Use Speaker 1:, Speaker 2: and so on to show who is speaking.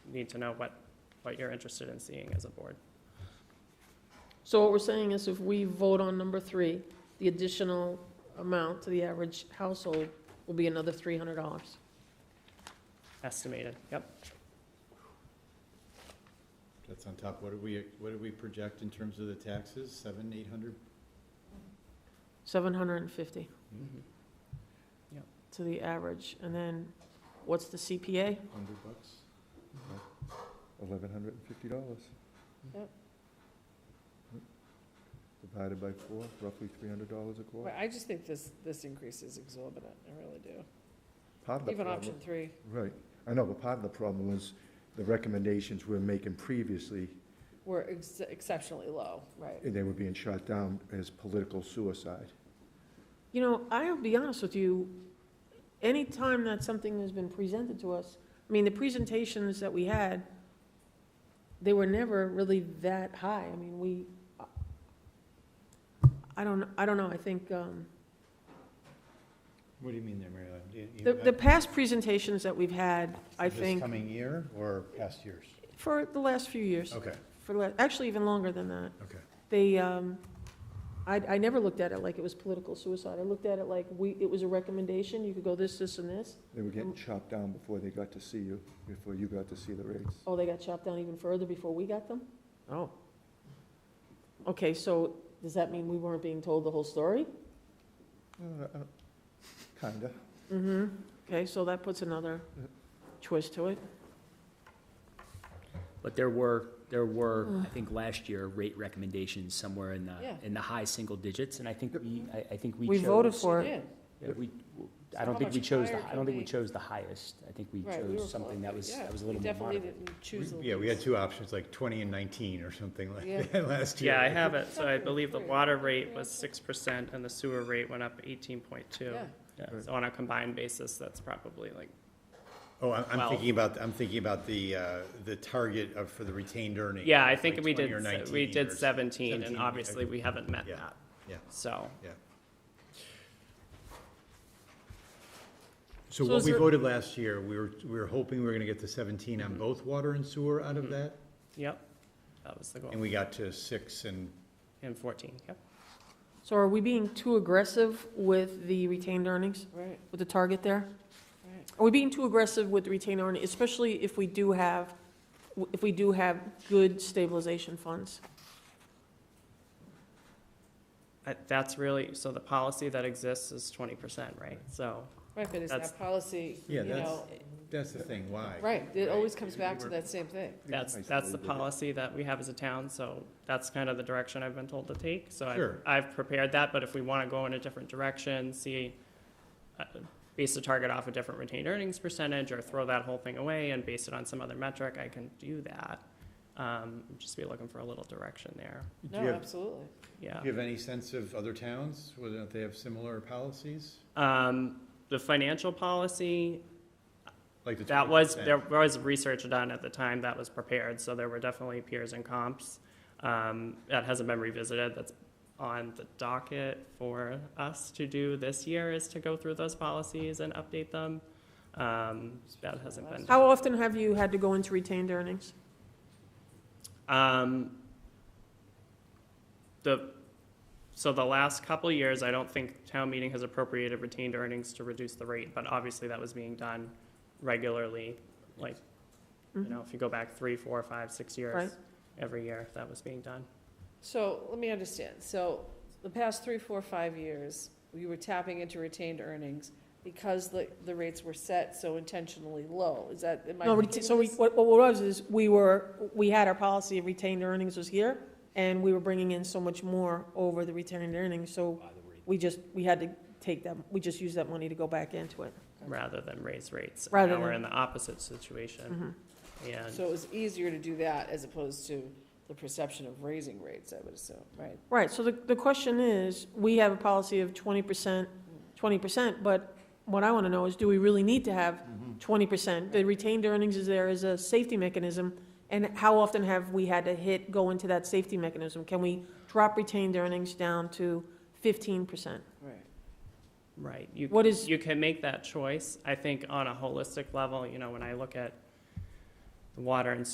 Speaker 1: need to know what, what you're interested in seeing as a board.
Speaker 2: So what we're saying is if we vote on number three, the additional amount to the average household will be another three hundred dollars.
Speaker 1: Estimated, yep.
Speaker 3: That's on top, what do we, what do we project in terms of the taxes, seven, eight hundred?
Speaker 2: Seven hundred and fifty
Speaker 1: Mhm.
Speaker 2: to the average, and then what's the CPA?
Speaker 3: Hundred bucks?
Speaker 4: eleven hundred and fifty dollars.
Speaker 2: Yep.
Speaker 4: Divided by four, roughly three hundred dollars a quarter.
Speaker 5: Well, I just think this, this increase is exorbitant, I really do.
Speaker 4: Part of the
Speaker 5: Even
Speaker 4: problem-
Speaker 5: option three,
Speaker 4: Right, I know, but part of the problem was the recommendations we were making previously,
Speaker 5: were ex- exceptionally low, right?
Speaker 4: and they were being shot down as political suicide.
Speaker 2: You know, I'll be honest with you, anytime that something has been presented to us, I mean, the presentations that we had, they were never really that high. I mean, we, I don't, I don't know, I think, um,
Speaker 3: What do you mean there, Mary Ellen? Do you- you-
Speaker 2: the, the past presentations that we've had, I
Speaker 3: This
Speaker 2: think,
Speaker 3: coming year or past years?
Speaker 2: for the last few years,
Speaker 3: Okay,
Speaker 2: for, the la- actually even longer than that,
Speaker 3: okay.
Speaker 2: they, um, I, I never looked at it like it was political suicide. I looked at it like we, it was a recommendation, you could go this, this, and this.
Speaker 4: They were getting chopped down before they got to see you, before you got to see the rates.
Speaker 2: Oh, they got chopped down even further before we got them? Oh. Okay, so does that mean we weren't being told the whole story?
Speaker 4: Uh, uh, Kinda.
Speaker 2: Mm-hmm. Okay, so that puts another
Speaker 3: Uh,
Speaker 2: twist to it.
Speaker 6: But there were, there were,
Speaker 2: Mm.
Speaker 6: I think, last year, rate recommendations somewhere in the,
Speaker 5: Yeah.
Speaker 6: in the high single digits, and I think we, I, I think we
Speaker 2: We
Speaker 6: chose.
Speaker 2: voted for it.
Speaker 5: Yeah,
Speaker 6: yeah, we-
Speaker 5: So
Speaker 6: I don't
Speaker 5: how
Speaker 6: think we
Speaker 5: much
Speaker 6: chose,
Speaker 5: higher
Speaker 6: the. I
Speaker 5: can
Speaker 6: don't think we
Speaker 5: they-
Speaker 6: chose the highest. I think we
Speaker 5: right, we were
Speaker 6: chose something
Speaker 5: close,
Speaker 6: that
Speaker 5: but
Speaker 6: was,
Speaker 5: yeah,
Speaker 6: that was a
Speaker 5: we
Speaker 6: little more moderate.
Speaker 5: Definitely didn't choose. the
Speaker 3: Yeah, we had
Speaker 5: least.
Speaker 3: two options, like twenty and nineteen or something
Speaker 5: Yeah.
Speaker 3: like that last year.
Speaker 1: Yeah, I have it, so I believe the
Speaker 5: Great.
Speaker 1: water rate was six percent and the sewer rate went up eighteen point two.
Speaker 5: Yeah.
Speaker 1: So on a combined basis, that's probably like,
Speaker 3: Oh, I'm, I'm
Speaker 1: Well-
Speaker 3: thinking about, I'm thinking about the, uh, the target of, for the retained earnings.
Speaker 1: yeah, I
Speaker 3: like
Speaker 1: think we
Speaker 3: 20
Speaker 1: did,
Speaker 3: or
Speaker 1: se-
Speaker 3: 19
Speaker 1: we
Speaker 3: or
Speaker 1: did seventeen,
Speaker 3: 17,
Speaker 1: and obviously,
Speaker 3: okay.
Speaker 1: we haven't met
Speaker 3: Yeah.
Speaker 1: that,
Speaker 3: Yeah,
Speaker 1: so.
Speaker 3: yeah. So
Speaker 2: So
Speaker 3: what
Speaker 2: is
Speaker 3: we
Speaker 2: there-
Speaker 3: voted last year, we were, we were hoping we were gonna get to seventeen on both water and sewer out of that,
Speaker 1: Yep, that was the goal,
Speaker 3: and we got to six and
Speaker 1: and fourteen, yep.
Speaker 2: So are we being too aggressive with the retained earnings,
Speaker 5: Right,
Speaker 2: with the target there?
Speaker 5: right.
Speaker 2: Are we being too aggressive with the retained earnings, especially if we do have, if we do have good stabilization funds?
Speaker 1: Uh, That's really, so the policy that exists is twenty percent, right? So,
Speaker 5: Right, but is
Speaker 1: That's-
Speaker 5: that policy,
Speaker 3: Yeah,
Speaker 5: you know,
Speaker 3: That's the thing, why?
Speaker 5: right, it always comes
Speaker 3: We
Speaker 5: back to
Speaker 3: were-
Speaker 5: that same thing.
Speaker 1: that's,
Speaker 4: Nice
Speaker 1: that's the
Speaker 4: little bit.
Speaker 1: policy that we have as a town, so that's kind of the direction I've been told to take. So
Speaker 3: Sure.
Speaker 1: I've, I've prepared that, but if we want to go in a different direction, see, uh, base the target off a different retained earnings percentage, or throw that whole thing away and base it on some other metric, I can do that. Um, Just be looking for a little direction there,
Speaker 3: Do
Speaker 5: No,
Speaker 3: you have,
Speaker 5: absolutely.
Speaker 1: yeah.
Speaker 3: do you have any sense of other towns, whether or not they have similar policies?
Speaker 1: Um, The financial policy,
Speaker 3: Like the
Speaker 1: That was,
Speaker 3: 20%?
Speaker 1: there was research done at the time that was prepared, so there were definitely peers and comps. Um, That hasn't been revisited, that's on the docket for us to do this year, is to go through those policies and update them. Um, That hasn't been,
Speaker 2: How often have you had to go into retained earnings?
Speaker 1: um, the, so the last couple of years, I don't think town meeting has appropriated retained earnings to reduce the rate, but obviously that was being done regularly, like You know, if you go back three, four, five, six years,
Speaker 2: Mm-hmm. Right.
Speaker 1: every year that was being done.
Speaker 5: So let me understand. So the past three, four, five years, we were tapping into retained earnings because the, the rates were set so intentionally low. Is that, am I?
Speaker 2: No,
Speaker 5: thinking
Speaker 2: reta- so we,
Speaker 5: this?
Speaker 2: what, what was is, we were, we had our policy of retained earnings was here, and we were bringing in so much more over the retained earnings, so we just, we had to take that, we just used that money to go back into it.
Speaker 1: rather than raise rates. And
Speaker 2: Rather
Speaker 1: Now we're
Speaker 2: than- Mm.
Speaker 1: in the opposite
Speaker 2: Mm-hmm.
Speaker 1: situation.
Speaker 5: So
Speaker 1: And,
Speaker 5: it was easier to do that as opposed to the perception of raising rates, I would assume, right?
Speaker 2: Right, so the, the question is, we have a policy of twenty percent, twenty percent, but what I wanna know is, do we really need to have
Speaker 3: Mm-hmm.
Speaker 2: twenty percent? The retained earnings is there as a safety mechanism, and how often have we had to hit, go into that safety mechanism? Can we drop retained earnings down to fifteen percent?
Speaker 5: Right.
Speaker 1: right, you,
Speaker 2: What is-
Speaker 1: you can make that choice. I think on a holistic level, you know, when I look at the water and